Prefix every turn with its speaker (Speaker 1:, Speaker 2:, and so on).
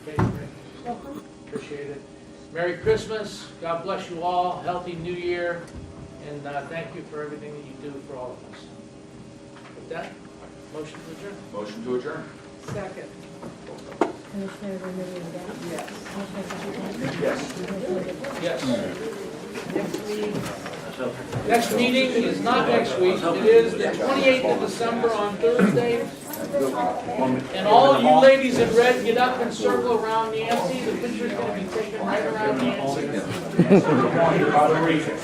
Speaker 1: Welcome.
Speaker 2: Appreciate it. Merry Christmas, God bless you all, healthy new year, and uh, thank you for everything that you do for all of us. With that, motion to adjourn.
Speaker 3: Motion to adjourn?
Speaker 1: Second.
Speaker 4: Commissioner Remedy Agati?
Speaker 1: Yes.
Speaker 4: Commissioner Castro?
Speaker 3: Yes.
Speaker 4: Commissioner Ditzler?
Speaker 2: Yes.
Speaker 1: Next week,
Speaker 2: Next meeting is not next week, it is the 28th of December on Thursday. And all of you ladies in red, get up and circle around Nancy, the picture's gonna be taken right around Nancy.